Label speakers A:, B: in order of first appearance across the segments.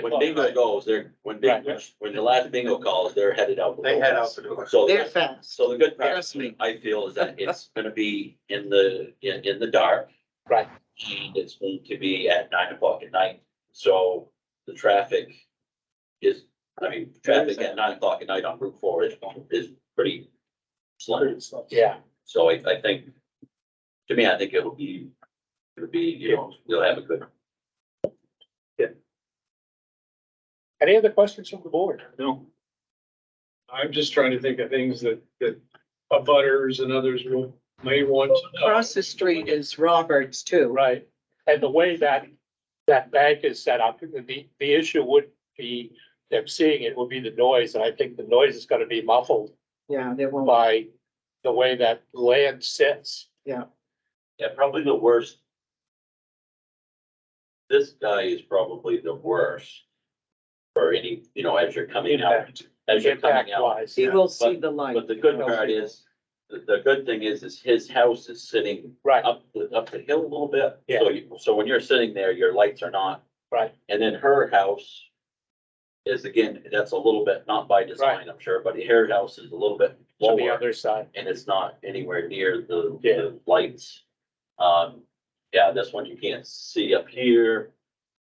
A: When bingo goes, they're, when bingo, when the last bingo calls, they're headed out. the
B: They
A: door.
B: head out to the.
A: So,
C: They're fast.
A: so the good part,
C: Trust me.
A: I feel, is that it's gonna be in the, in, in the dark.
D: Right.
A: And it's going to be at nine o'clock at night, so the traffic is, I mean, traffic at nine o'clock at night on Route Four is, is pretty slim.
D: Yeah,
A: So I, I think, to me, I think it'll be, it'll be, you know, we'll have a good
D: any other questions from the board?
E: No. I'm just trying to think of things that, that abutters and others will, may want to know.
C: Across the street is Roberts too.
D: Right, and the way that, that bank is set up, the, the issue would be, them seeing it would be the noise, and I think the noise is gonna be muffled
C: Yeah, they won't.
D: by the way that land sits.
A: Yeah, probably the worst. This guy is probably the worst. For any, you know, as you're coming out,
D: Impact,
A: as you're
D: impact
A: coming out.
D: wise,
C: He will see the light.
A: But the good part is, the, the good thing is, is his house is sitting
D: right,
A: up, the- up the hill a little bit. So you, so when you're sitting there, your lights are not.
D: Right.
A: And then her house. Is again, that's a little bit, not by design, I'm sure, but her house is a little bit
D: on the
A: lower
D: other side,
A: and it's not anywhere near the,
D: Yeah.
A: the lights. Um, yeah, this one you can't see up here,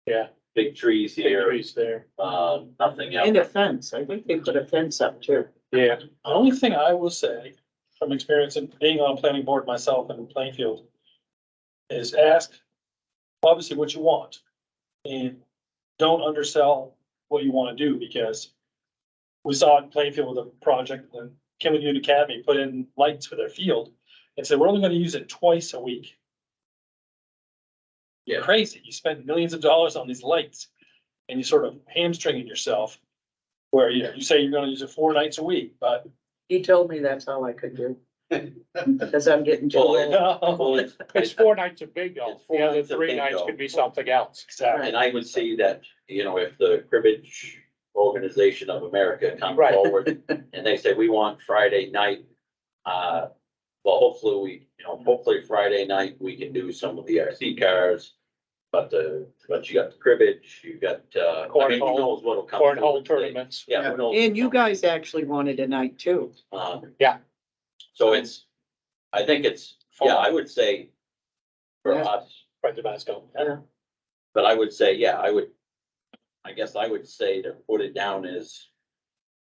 D: yeah,
A: big trees
D: big
A: here,
D: trees there,
A: uh, nothing
C: And a
A: else.
C: fence. I think they put a fence up too.
D: yeah,
F: The only thing I will say from experience in being on a planning board myself in Plainfield is ask obviously what you want and don't undersell what you want to do because we saw in Plainfield with a project when Kimley Union Academy put in lights for their field and said, we're only going to use it twice a week.
A: Yeah.
F: Crazy. You spend millions of dollars on these lights and you sort of hamstringing yourself where, you know, you say you're going to use it four nights a week, but
C: He told me that's all I could do. Cause I'm getting too
A: Well,
C: old.
A: it-
F: no.
A: Well, it's-
D: it's four nights of bingo,
A: It's four
D: the other
A: nights of
D: three nights
A: bingo.
D: could be something else.
F: Exactly.
A: And I would see that, you know, if the cribbage organization of America come
D: Right.
A: forward and they say, we want Friday night, uh, well, hopefully we, you know, hopefully Friday night, we can do some of the RC cars. But the, but you got the cribbage, you got, uh, I mean, who
D: Cornhole-
A: knows what'll come.
D: Cornhole tournaments,
A: Yeah. who knows
C: And you
A: what'll come.
C: guys actually wanted a night too.
A: Um,
D: Yeah.
A: So it's, I think it's, yeah, I would say for
C: Yeah.
A: us,
D: Friends of Masco,
A: but I would say, yeah, I would, I guess I would say to put it down as,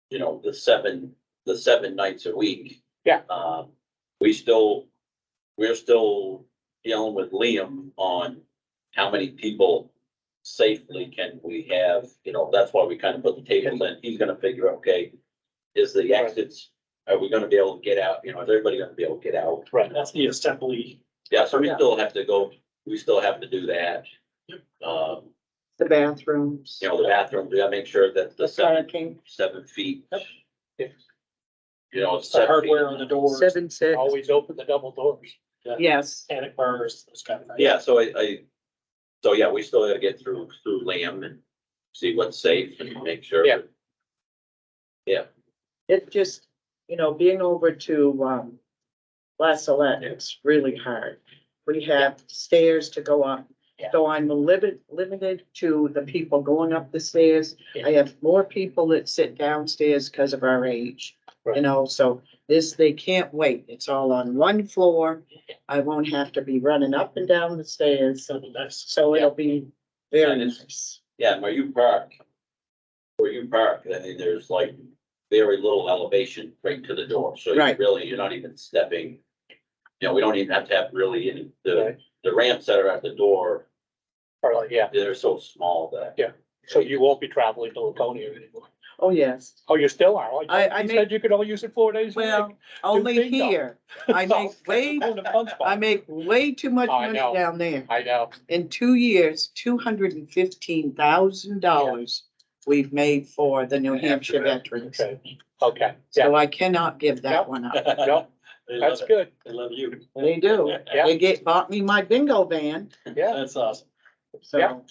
A: you know, the seven, the seven nights a week.
D: Yeah.
A: Um, we still, we're still dealing with Liam on how many people safely can we have, you know, that's why we kind of put the tables in. He's gonna figure, okay, is the exits, are we gonna be able to get out, you know, is everybody gonna be able to get out?
D: right,
F: That's the assembly.
A: Yeah, so we
C: Yeah.
A: still have to go, we still have to do that. Um,
C: The bathrooms.
A: you know, the bathroom, do I make sure that the
C: The
A: seven,
C: parking,
A: seven feet?
F: Yep.
D: Yep.
A: You know, it's
F: The
A: seven
F: hardware
A: feet.
F: on the doors,
C: seven, six,
D: always open the double doors.
C: yes.
F: panic bars, those kind of things.
A: Yeah, so I, I, so yeah, we still gotta get through, through Lamb and see what's safe and make sure.
D: Yeah.
C: It just, you know, being over to, um, La Salette,
A: Yeah.
C: it's really hard. We have stairs to go up.
D: Yeah.
C: So I'm limited, limited to the people going up the stairs. I have more people that sit downstairs because of our age. You
D: Right.
C: know, so this, they can't wait. It's all on one floor. I won't have to be running up and down the stairs.
F: So that's-
C: So it'll be very
A: And it's-
C: nice.
A: Yeah, and where you park, where you park, I mean, there's like very little elevation right to the door, so you
C: Right.
A: really, you're not even stepping. You know, we don't even have to have really any, the,
D: Right.
A: the ramps that are at the door,
D: Or like, yeah,
A: they're so small that.
D: Yeah. so you won't be traveling to Laconia anymore.
C: Oh, yes.
D: Oh, you still are? Oh,
C: I- I
D: You
C: make-
D: said you could only use it four days a
C: Well,
D: week.
C: only
D: ding dong.
C: here. I make way,
F: Going to punch bowl.
C: I make way too much
D: Oh, I
C: money
D: know.
C: down there.
D: I know.
C: In two years, two hundred and fifteen thousand dollars we've made for the New Hampshire veterans.
D: Okay, okay, yeah,
C: So I cannot give
D: Yep.
C: that one up.
D: no,
F: They love
D: that's
F: it.
D: good,
F: They love you.
C: They do.
D: Yeah.
C: They get, bought me my bingo van,
D: yeah.
F: That's awesome.
C: so.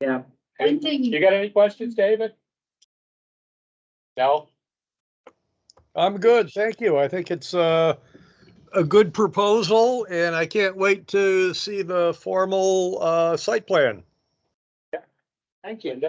D: Hey, You got any questions, David? No?
G: I'm good, thank you. I think it's uh, a good proposal, and I can't wait to see the formal uh, site plan.
F: Thank you.